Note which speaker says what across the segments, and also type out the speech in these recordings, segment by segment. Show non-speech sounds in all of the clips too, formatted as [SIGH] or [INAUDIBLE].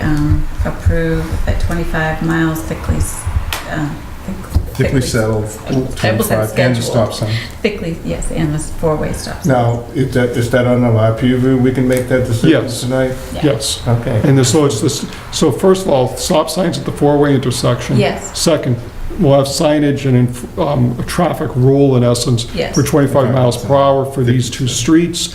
Speaker 1: um, approve at 25 miles thickly, s- uh, thick-
Speaker 2: Thickly settled,
Speaker 1: Table set
Speaker 2: 25, and the
Speaker 1: schedule.
Speaker 2: stop sign.
Speaker 1: Thickly, yes, and the four-way stop sign.
Speaker 2: Now, is that, is that on our PUV? We can make that decision
Speaker 3: Yes.
Speaker 2: tonight?
Speaker 3: Yes.
Speaker 2: Okay.
Speaker 3: And there's- so it's this, so first of all, stop signs at the four-way intersection.
Speaker 1: Yes,
Speaker 3: Second, we'll have signage and inf- um, a traffic rule in essence
Speaker 1: yes.
Speaker 3: for 25 miles per hour for these two streets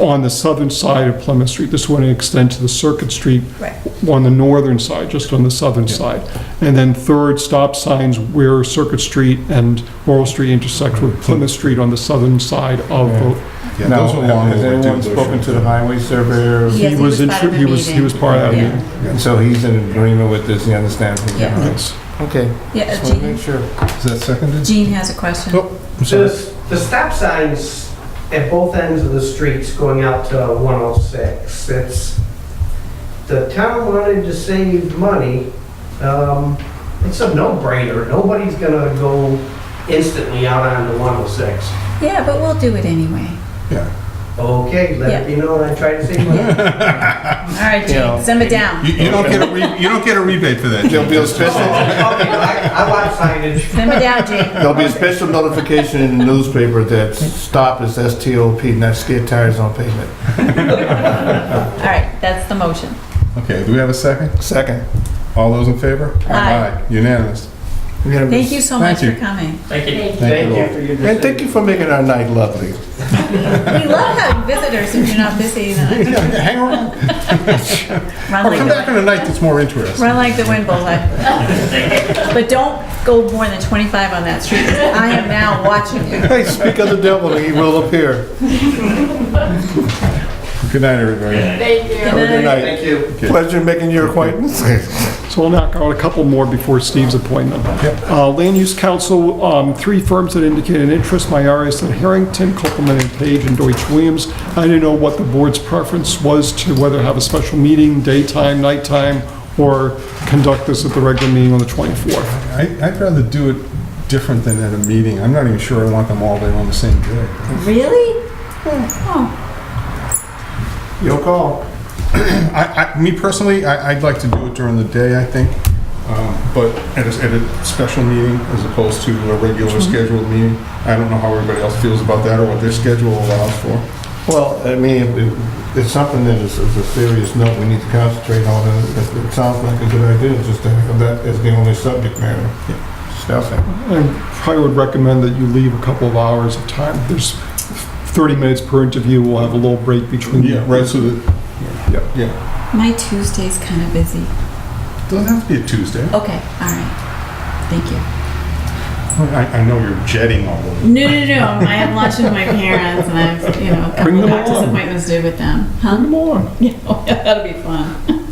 Speaker 3: on the southern side of Plymouth Street. This wouldn't extend to the Circuit Street
Speaker 1: Right.
Speaker 3: on the northern side, just on the southern
Speaker 2: Yeah.
Speaker 3: side. And then third, stop signs where Circuit Street and Laurel Street intersect with Plymouth Street on the southern side of the...
Speaker 4: Yeah,
Speaker 2: Now,
Speaker 4: those are long
Speaker 2: has
Speaker 4: overdue,
Speaker 2: anyone
Speaker 4: those
Speaker 2: spoken
Speaker 4: are-
Speaker 2: to the highway
Speaker 4: uh,
Speaker 2: surveyor?
Speaker 1: Yes, he was
Speaker 3: in-
Speaker 1: part of the
Speaker 3: he was- He was part of that
Speaker 1: meeting.
Speaker 3: meeting.
Speaker 2: And so he's in agreement with this, he understands? what we're
Speaker 1: Yeah.
Speaker 2: doing.
Speaker 3: Yes.
Speaker 2: Okay.
Speaker 1: Yeah,
Speaker 2: Just
Speaker 1: uh,
Speaker 2: wanna
Speaker 1: Gene,
Speaker 2: make sure. Is that seconded?
Speaker 1: Gene has a question.
Speaker 2: Oh. I'm sorry.
Speaker 5: There's the stop signs at both ends of the streets going out to 106. It's, the town wanted to save money. Um, It's a no-brainer. Nobody's gonna go instantly out onto 106.
Speaker 1: Yeah, but we'll do it anyway.
Speaker 5: Okay, let it be known, I tried to save money.
Speaker 1: All right,
Speaker 2: Yeah.
Speaker 1: Gene, send it down.
Speaker 4: You, you don't get a, re- you don't get a rebate for that.
Speaker 2: There'll be a
Speaker 5: Oh, [LAUGHS] Okay,
Speaker 2: special,
Speaker 5: I I want signage.
Speaker 1: Send it down, Gene.
Speaker 2: there'll be a special notification in the newspaper that stop is S-T-O-P, not skid tires on pavement.
Speaker 1: All right, that's the motion.
Speaker 4: Okay, do we have a second?
Speaker 2: Second.
Speaker 4: All those in favor?
Speaker 1: Aye.
Speaker 4: Unanimous.
Speaker 1: Thank you so much
Speaker 4: Thank
Speaker 1: for
Speaker 4: you.
Speaker 1: coming.
Speaker 5: Thank you.
Speaker 4: Thank you all.
Speaker 5: for your
Speaker 2: And thank you for making our night lovely.
Speaker 1: We love having visitors if you're not busy. then
Speaker 4: Hang around,
Speaker 1: Run
Speaker 4: or
Speaker 1: like
Speaker 4: come back
Speaker 1: the,
Speaker 4: on a night that's more interesting.
Speaker 1: run like the wind, bullseye. [LAUGHS] But don't go more than 25 on that street. I am now watching you.
Speaker 2: Hey, speak of the devil, and he will appear.
Speaker 4: Good night, everybody.
Speaker 2: Have a good night.
Speaker 5: Thank you.
Speaker 2: Pleasure making your acquaintance.
Speaker 3: So I'll knock out a couple more before Steve's appointment. Uh, Land Use Council, um, three firms that indicated interest, Myaris and Harrington, Copeland and Page, and Deutsch Williams. I didn't know what the board's preference was to whether have a special meeting, daytime, nighttime, or conduct this at the regular meeting on the 24th.
Speaker 4: I, I'd rather do it different than at a meeting. I'm not even sure I want them all there on the same day.
Speaker 1: [LAUGHS] Really? Oh,
Speaker 2: Your call.
Speaker 4: I, I, me personally, I, I'd like to do it during the day, I think, um, but at a, at a special meeting as opposed to a regular
Speaker 2: Mm-hmm.
Speaker 4: scheduled meeting. I don't know how everybody else feels about that or what their schedule allows for.
Speaker 2: Well, I mean, it- it's something that is is a serious note we need to concentrate on, and it- it sounds like a good idea, just to have that as the only subject matter. Stuffing.
Speaker 3: I probably would recommend that you leave a couple of hours of time. There's 30 minutes per interview, we'll have a little break between.
Speaker 4: Right, so that, yeah,
Speaker 1: my Tuesday's kind of busy.
Speaker 4: doesn't have to be a Tuesday.
Speaker 1: Okay, all right. Thank you.
Speaker 4: I, I know you're jetting all over.
Speaker 1: No, no, no. I have lunch with my parents, and I have you know a couple
Speaker 3: Bring them
Speaker 1: of doctor's
Speaker 3: along.
Speaker 1: appointments due with them. [LAUGHS] Huh?
Speaker 3: Come on.
Speaker 1: Yeah, oh, yeah, that'll be fun.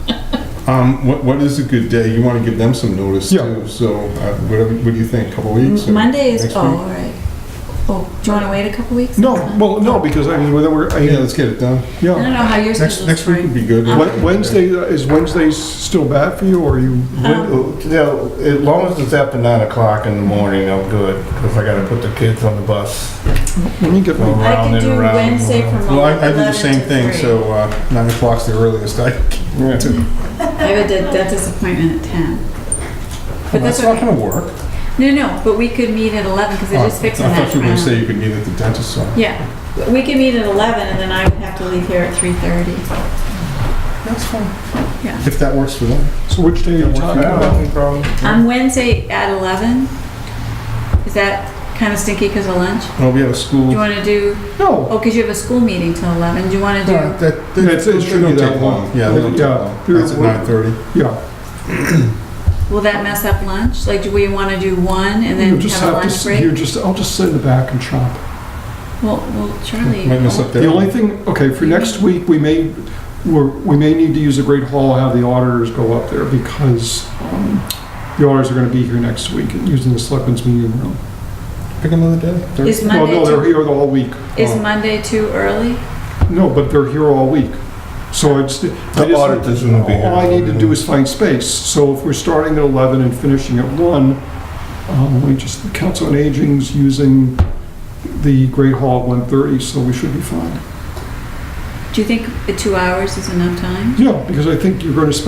Speaker 4: Um, what, what is a good day? You want to give them some notice
Speaker 3: Yeah.
Speaker 4: too, so, uh, whatever, what do you think, couple weeks? or
Speaker 1: Monday is
Speaker 4: next
Speaker 1: oh,
Speaker 4: week?
Speaker 1: all right. Oh, do you want to wait a couple weeks?
Speaker 3: No, well, no, because I mean, whether we're,
Speaker 4: Oh, Yeah,
Speaker 3: I-
Speaker 4: let's get it done.
Speaker 1: I
Speaker 3: yeah.
Speaker 1: don't know how yours
Speaker 4: Next, next week would be good.
Speaker 3: Wed- Wednesday, uh, is Wednesday still bad for you, or are you?
Speaker 1: Um,
Speaker 2: When- yeah, oh, As long as it's after nine o'clock in the morning, I'm good, because I gotta put the kids on the bus.
Speaker 3: Let me get my,
Speaker 1: I
Speaker 2: around
Speaker 1: could
Speaker 2: and
Speaker 1: do
Speaker 2: around.
Speaker 1: Wednesday from
Speaker 4: Well, I, I do
Speaker 1: 11
Speaker 4: the same
Speaker 1: to
Speaker 4: thing,
Speaker 1: 3.
Speaker 4: so, uh, nine o'clock's the earliest I
Speaker 2: Yeah.
Speaker 1: I have a de- dentist appointment at ten. But that's
Speaker 4: Well, that's not
Speaker 1: okay.
Speaker 4: gonna work. Uh,
Speaker 1: No, no. But we could meet at eleven because I just fixed
Speaker 4: Oh, I
Speaker 1: that.
Speaker 4: thought you were gonna
Speaker 1: round.
Speaker 4: say you could meet at the dentist's office.
Speaker 1: yeah, we could meet at eleven, and then I would have to leave here at three thirty.
Speaker 4: That's fine.
Speaker 1: Yeah.
Speaker 4: If that works for them.
Speaker 3: so which day are you talking about?
Speaker 2: No problem.
Speaker 1: On Wednesday at eleven. Is that kind of stinky because of lunch?
Speaker 4: Well, we have a
Speaker 1: Do you
Speaker 4: school.
Speaker 1: want to do?
Speaker 3: No.
Speaker 1: Oh, because you have a school meeting till 11. Do you want to do?
Speaker 4: Yeah, that-
Speaker 3: Yeah, it's- it
Speaker 4: they
Speaker 3: shouldn't
Speaker 4: don't
Speaker 3: be that
Speaker 4: take
Speaker 3: long.
Speaker 4: Yeah, they don't take
Speaker 3: Yeah.
Speaker 4: long. That's at nine thirty.
Speaker 3: Yeah.
Speaker 1: Will that mess up lunch? Like, do we want to do one and
Speaker 3: You
Speaker 1: then
Speaker 3: just
Speaker 1: have a
Speaker 3: to
Speaker 1: lunch
Speaker 3: s-
Speaker 1: break?
Speaker 3: You just, I'll just sit in the back and shop.
Speaker 1: Well, well, Charlie.
Speaker 4: Might miss up there.
Speaker 3: The only thing, okay, for next week, we may, we're, we may need to use the Great Hall, have the auditors go up there, because, um, the auditors are gonna be here next week, using the selectmen's meeting room.
Speaker 4: Pick another day. Thir-
Speaker 1: Is
Speaker 3: Well,
Speaker 1: Monday
Speaker 3: no, they're
Speaker 1: too,
Speaker 3: here the whole week.
Speaker 4: Oh.
Speaker 1: is Monday too early?
Speaker 3: No, but they're here all week. So it's. The
Speaker 2: auditors won't be here.
Speaker 3: All I need to do is find space. So if we're starting at 11 and finishing at 1, um, we just, the Council on Aging's using the Great Hall at 1:30, so we should be fine.
Speaker 1: Do you think the two hours is enough time?
Speaker 3: Yeah, because I think you're going to spend